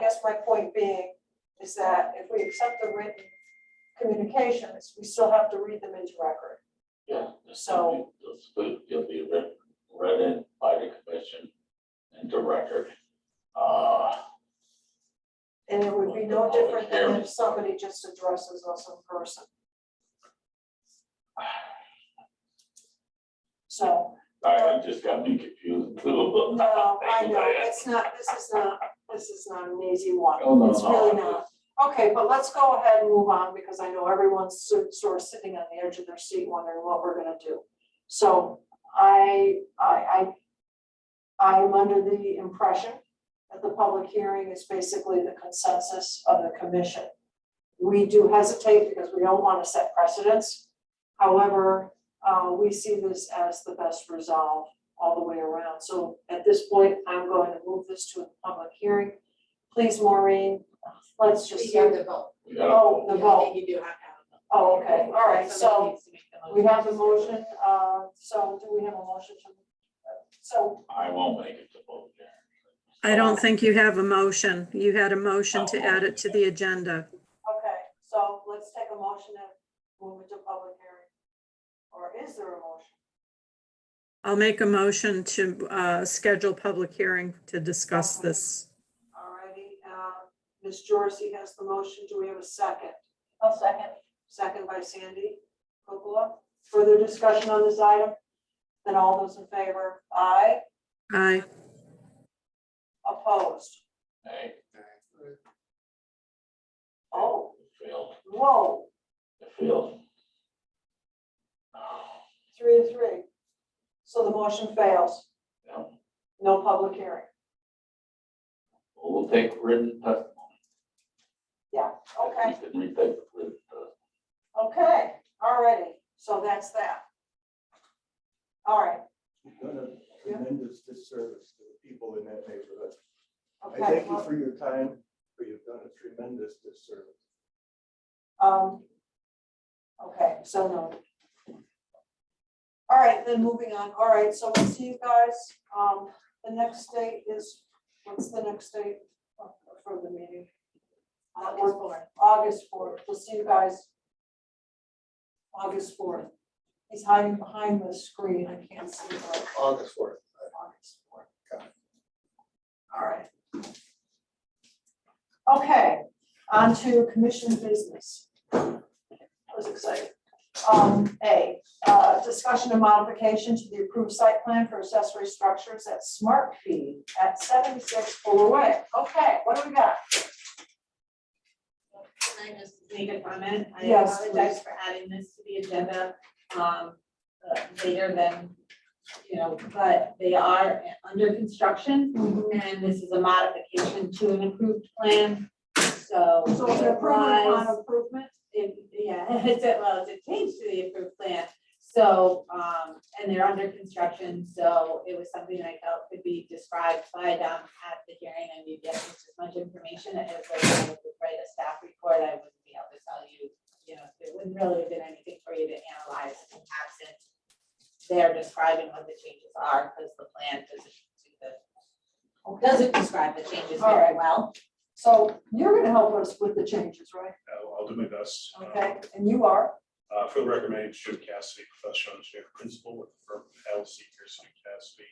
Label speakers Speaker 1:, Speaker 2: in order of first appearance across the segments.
Speaker 1: guess my point being is that if we accept the written communications, we still have to read them into record.
Speaker 2: Yeah.
Speaker 1: So-
Speaker 2: It's good, you'll be read, read in by the commission into record. Uh,
Speaker 1: And it would be no different than if somebody just addresses us in person. So,
Speaker 2: I, I just got me confused a little bit.
Speaker 1: no, I know, it's not, this is not, this is not an easy one.
Speaker 2: Oh, no,
Speaker 1: It's
Speaker 2: no,
Speaker 1: really
Speaker 2: I-
Speaker 1: not. Okay, but let's go ahead and move on because I know everyone's so- sort of sitting on the edge of their seat wondering what we're gonna do. So I, I, I, I'm under the impression that the public hearing is basically the consensus of the commission. We do hesitate because we don't wanna set precedents. However, uh, we see this as the best resolve all the way around. So at this point, I'm going to move this to a public hearing. Please, Maureen, let's just.
Speaker 3: We do the vote.
Speaker 2: We gotta
Speaker 1: Oh, the
Speaker 3: Yeah, I
Speaker 1: vote,
Speaker 3: think you do have to have a vote.
Speaker 1: oh, okay, all right,
Speaker 3: Somebody
Speaker 1: so
Speaker 3: needs to make the
Speaker 1: we have the motion, uh, so do we have a motion to? uh, So,
Speaker 2: I won't make it to vote there.
Speaker 4: I don't think you have a motion. You had a motion to add it to the agenda.
Speaker 1: okay, so let's take a motion and move it to public hearing. Or is there a motion?
Speaker 4: I'll make a motion to uh, schedule public hearing to discuss this.
Speaker 1: Alrighty, uh, Ms. Jorsey has the motion, do we have a second?
Speaker 5: I'll second.
Speaker 1: Second by Sandy Kukula. Further discussion on this item? Then all those in favor, aye,
Speaker 4: Aye.
Speaker 1: opposed?
Speaker 2: Hey,
Speaker 1: Oh,
Speaker 2: it failed,
Speaker 1: whoa,
Speaker 2: it failed.
Speaker 1: three to three. So the motion fails,
Speaker 2: Yeah,
Speaker 1: no public hearing.
Speaker 2: We'll take written testimony.
Speaker 1: Okay,
Speaker 2: We can retake written testimony.
Speaker 1: okay, alrighty, so that's that. Alright,
Speaker 6: You've done a tremendous disservice to the people in that neighborhood. I
Speaker 1: okay,
Speaker 6: thank you for your time, but you've done a tremendous disservice.
Speaker 1: um. Okay, so no. Alright, then moving on, alright, so we'll see you guys, um, the next date is, what's the next date for the meeting? Uh, we're-
Speaker 3: August fourth.
Speaker 1: August fourth, we'll see you guys. August fourth. He's hiding behind the screen, I can't see him.
Speaker 6: August fourth.
Speaker 1: August fourth.
Speaker 6: Got
Speaker 1: All right. Okay, on to commission business. I was excited. Um, A, uh, discussion and modification to the approved site plan for accessory structures at Smart Feed at seventy-six Fuller Way. Okay, what do we got?
Speaker 3: Can I just make a comment? I
Speaker 1: Yes,
Speaker 3: apologize for adding this to the agenda, um, uh, later than, you know, but they are under construction.
Speaker 1: Mm-hmm.
Speaker 3: And this is a modification to an approved plan, so.
Speaker 1: So it's an improvement
Speaker 3: applies-
Speaker 1: upon improvement?
Speaker 3: it, yeah, it's a, well, it's a change to the approved plan. So, um, and they're under construction, so it was something that I felt could be described by Dom at the hearing, and you get as much information as they would write a staff report, I wouldn't be able to tell you, you know, there wouldn't really have been anything for you to analyze in absent they're describing what the changes are, because the plan doesn't do the, doesn't describe the changes
Speaker 1: All
Speaker 3: very
Speaker 1: right.
Speaker 3: well.
Speaker 1: So you're gonna help us with the changes, right?
Speaker 7: I'll, I'll do my best. Um,
Speaker 1: Okay, and you are?
Speaker 7: Uh, for the record, my name is Jim Cassidy, professional engineer principal with the firm LC Pearson and Cassidy,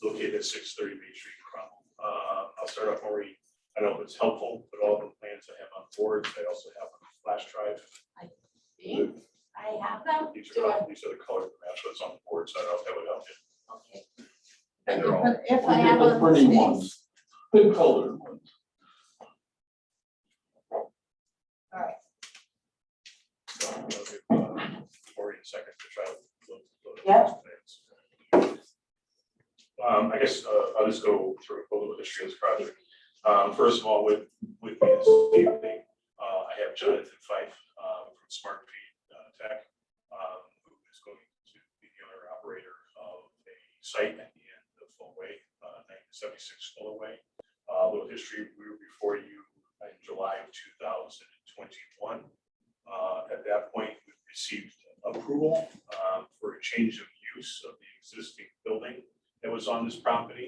Speaker 7: located at six thirty Main Street, Cromwell. Uh, I'll start off already, I don't know if it's helpful, but all the plans I have on board, I also have a flash drive.
Speaker 3: I have them,
Speaker 7: These
Speaker 3: Do I-
Speaker 7: are, these are the colors of the match that's on the board, so I don't know if that would help you.
Speaker 3: okay.
Speaker 7: And they're all,
Speaker 5: If I
Speaker 2: We
Speaker 5: have
Speaker 2: did the
Speaker 5: a
Speaker 2: pretty
Speaker 5: mistake,
Speaker 2: ones, the colored ones.
Speaker 7: so I'm gonna give, uh, Cory a second to try to. look- look at
Speaker 1: Yeah.
Speaker 7: those plans. Um, I guess, uh, I'll just go through a little bit of history of this project. Um, first of all, with, with me this evening, uh, I have Jonathan Fife, um, from Smart Feed uh, Tech, um, who is going to be the owner operator of a site at the end of Fullway, uh, nineteen seventy-six Fullway. Uh, a little history, we were before you in July of two thousand and twenty-one. Uh, at that point, we received approval, um, for a change of use of the existing building that was on this property. Uh,